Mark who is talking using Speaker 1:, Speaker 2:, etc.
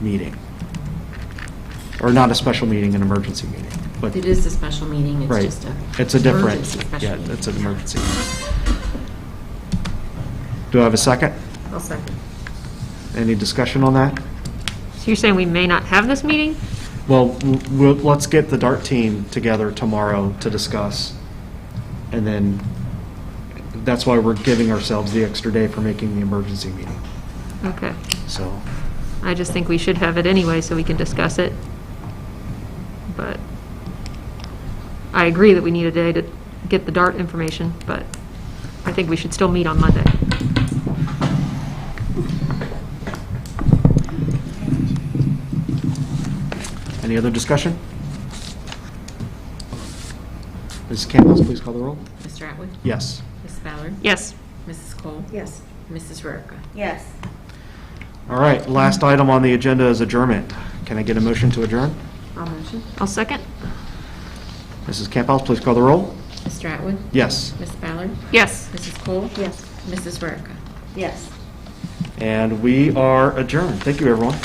Speaker 1: meeting. Or not a special meeting, an emergency meeting, but,
Speaker 2: It is a special meeting, it's
Speaker 1: right.
Speaker 2: just a.
Speaker 1: It's a different,
Speaker 2: emergency special
Speaker 1: yeah,
Speaker 2: meeting.
Speaker 1: it's an emergency. Do I have a second?
Speaker 2: I'll second.
Speaker 1: Any discussion on that?
Speaker 3: So you're saying we may not have this meeting?
Speaker 1: Well, w- we'll, let's get the DART team together tomorrow to discuss. And then, that's why we're giving ourselves the extra day for making the emergency meeting,
Speaker 3: Okay.
Speaker 1: so.
Speaker 3: I just think we should have it anyway, so we can discuss it. But I agree that we need a day to get the DART information, but I think we should still meet on Monday.
Speaker 1: Any other discussion? Mrs. Campbell, please call the roll.
Speaker 2: Mr. Atwood?
Speaker 1: Yes.
Speaker 2: Mrs. Ballard?
Speaker 3: Yes.
Speaker 2: Mrs. Cole?
Speaker 4: Yes.
Speaker 2: Mrs. Rarica?
Speaker 4: Yes.
Speaker 1: All right, last item on the agenda is adjournment. Can I get a motion to adjourn?
Speaker 2: I'll motion.
Speaker 3: I'll second.
Speaker 1: Mrs. Campbell, please call the roll.
Speaker 2: Mr. Atwood?
Speaker 1: Yes.
Speaker 2: Ms. Ballard?
Speaker 3: Yes.
Speaker 2: Mrs. Cole?
Speaker 4: Yes.
Speaker 2: Mrs. Rarica?
Speaker 4: Yes.
Speaker 1: And we are adjourned. Thank you, everyone.